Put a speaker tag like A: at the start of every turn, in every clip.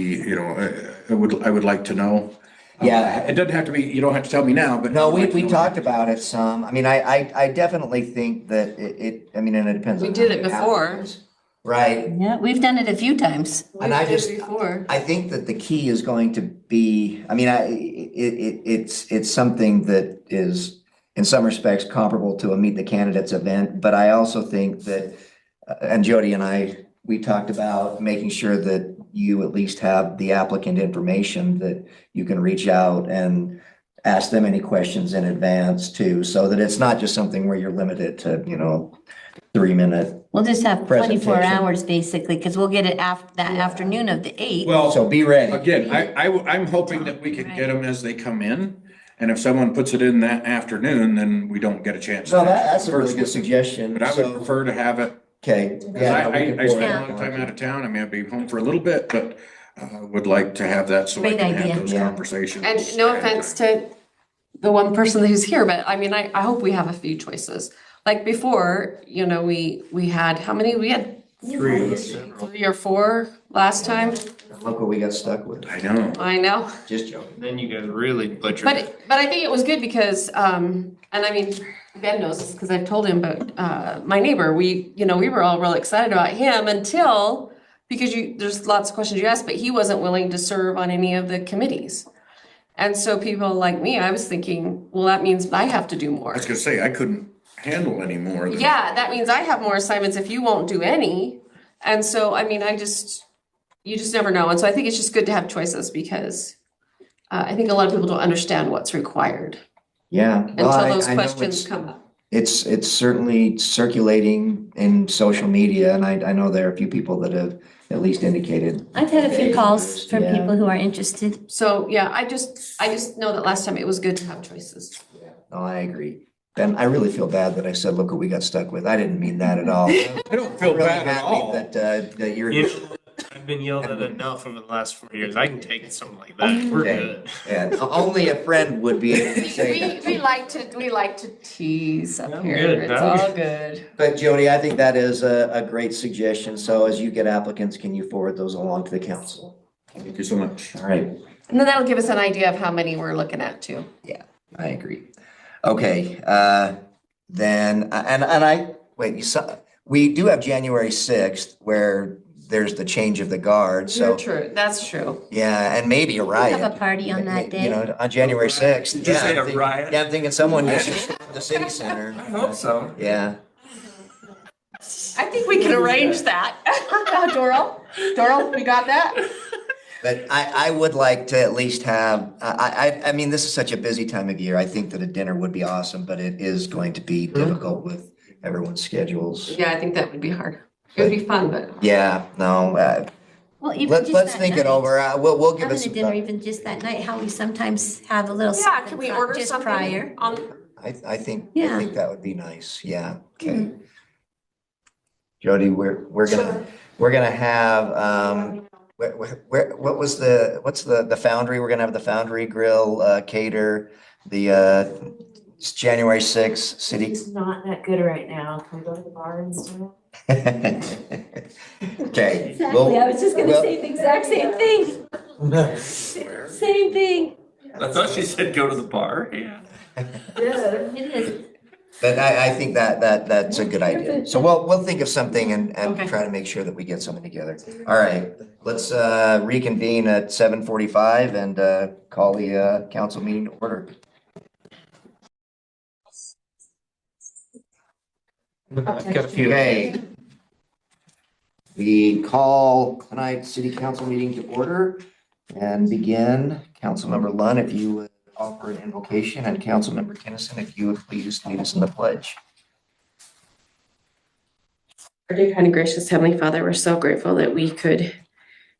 A: you know, I- I would, I would like to know.
B: Yeah.
A: Uh, It doesn't have to be, you don't have to tell me now, but.
B: No, we,
A: I'd like to
B: we
A: know.
B: talked about it some. I mean, I, I, I definitely think that it, it, I mean, and it depends.
C: We
B: on
C: did
B: how
C: it
B: many
C: before.
B: applicants. Right.
D: Yeah, we've done it a few times.
B: And I
C: We did
B: just-
C: Before.
B: I think that the key is going to be, I mean, I, it, it, it's, it's something that is in some respects comparable to a Meet the Candidates event, but I also think that, uh, and Jody and I, we talked about making sure that you at least have the applicant information that you can reach out and ask them any questions in advance too, so that it's not just something where you're limited to, you know, three minute.
D: We'll just have twenty-four
B: Presentation.
D: hours basically, because we'll get it af, that afternoon of the eighth.
A: Well,
B: So be ready.
A: again, I, I, am hoping that we can get them as they come in. And if someone puts it in that afternoon, then we don't get a chance.
B: So
A: to
B: that, that's a really
A: first
B: good
A: with them.
B: suggestion.
A: But I
B: So-
A: would prefer to have it,
B: Okay.
A: 'cause I,
B: yeah, we
A: I,
B: can
A: I
B: pull
A: spend a
B: that
A: lot of
B: one.
A: time out of town. I mean, I'd be home for a little bit, but uh, would like to have that so I
D: Great
A: can have
D: idea.
A: those
B: Yeah.
A: conversations.
C: And no offense to the one person who's here, but I mean, I, I hope we have a few choices. Like before, you know, we, we had, how many? We had
A: Three.
C: three or four last time.
B: Look what we got stuck with.
A: I know.
C: I know.
B: Just joking.
E: Then you guys really butchered it.
C: But, but I think it was good because, um, and I mean, Ben knows this because I've told him, but, uh, my neighbor, we, you know, we were all real excited about him until, because you, there's lots of questions you asked, but he wasn't willing to serve on any of the committees. And so people like me, I was thinking, well, that means I have to do more.
A: I was gonna say, I couldn't handle any more than.
C: Yeah, that means I have more assignments if you won't do any. And so, I mean, I just, you just never know. And so I think it's just good to have choices because uh, I think a lot of people don't understand what's required
B: Yeah. well, I-
C: until those
B: I know
C: questions
B: it's-
C: come up.
B: It's, it's certainly circulating in social media and I, I know there are a few people that have at least indicated.
D: I've had a few calls from
B: Yeah.
D: people who are interested.
C: So, yeah, I just, I just know that last time it was good to have choices.
B: No, I agree. Ben, I really feel bad that I said, look what we got stuck with. I didn't mean that at all. I'm
A: I don't feel
B: really
A: bad at
B: happy
A: all.
B: That, uh, that you're,
E: You know, I've been yelled at enough over the last four years. I can take something like that. We're
B: Okay.
E: good.
B: and only a friend would be able to say that.
C: we like to, we like to tease
E: No, good, no.
C: good.
B: But Jody, I think that is a, a great suggestion. So as you get applicants, can you forward those along to the council?
A: Thank you so much.
B: All right.
C: And then that'll give us an idea of how many we're looking at too.
B: I agree. Okay, uh, then, uh, and, and I, wait, you saw, we do have January sixth where there's the change of the guard, so,
C: You're true, that's true.
B: yeah, and maybe a riot.
D: Have a party on that
B: You
D: day.
B: know, on January sixth.
E: Did you say a riot?
B: Yeah, I'm thinking someone just stormed the city center.
E: I hope so.
B: Yeah,
C: I think we can arrange that. Oh, Doral, Doral, we got that?
B: but I, I would like to at least have, I, I, I mean, this is such a busy time of year. I think that a dinner would be awesome, but it is going to be
D: Mm-hmm.
B: difficult with everyone's schedules.
C: Yeah, I think that would be hard. It would be fun, but
B: Yeah, no, uh,
D: Well, even
B: Let's,
D: just
B: let's
D: that
B: think
D: night.
B: it over. Uh, We'll, we'll give
D: Having
B: us
D: a
B: some
D: dinner
B: time.
D: even just that night, how we sometimes have a little.
C: yeah,
D: something
C: can we
D: pri-
C: order
D: just
C: something
D: Prior.
C: on?
B: I, I think, I
D: Yeah.
B: think that would be nice. Yeah, okay.
F: Mm-hmm.
B: Jody, we're, we're gonna, we're gonna have, um, where, where- where, what was the, what's the, the foundry? We're gonna have the foundry grill, uh, cater, the, uh, it's January sixth, city.
F: It's not that good right now. Can we go to the bar instead?
B: Okay.
D: Exactly, I was just gonna
B: well-
D: say the exact same thing, same thing.
E: I thought she said go to the bar. Yeah.
F: Yeah.
D: It is.
B: But I, I think that, that, that's a good idea. So we'll, we'll think of something and, and
C: Okay.
B: try to make sure that we get something together. All right, let's, uh, reconvene at seven forty-five and, uh, call the, uh, council meeting to order.
E: I've got a few.
B: Okay. We call tonight's city council meeting to order and begin. Councilmember Lunn, if you would offer an invocation, and Councilmember Kinnison, if you would please lead us in the pledge.
C: Our dear kind and gracious Heavenly Father, we're so grateful that we could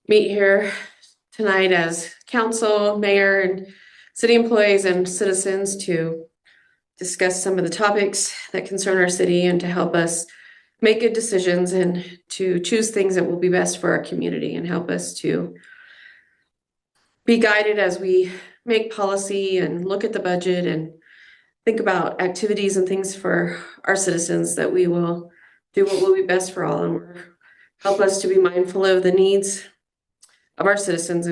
C: meet here tonight as council, mayor, and city employees and citizens to discuss some of the topics that concern our city and to help us make good decisions and to choose things that will be best for our community and help us to be guided as we make policy and look at the budget and think about activities and things for our citizens that we will do what will be best for all and we're- help us to be mindful of the needs of our citizens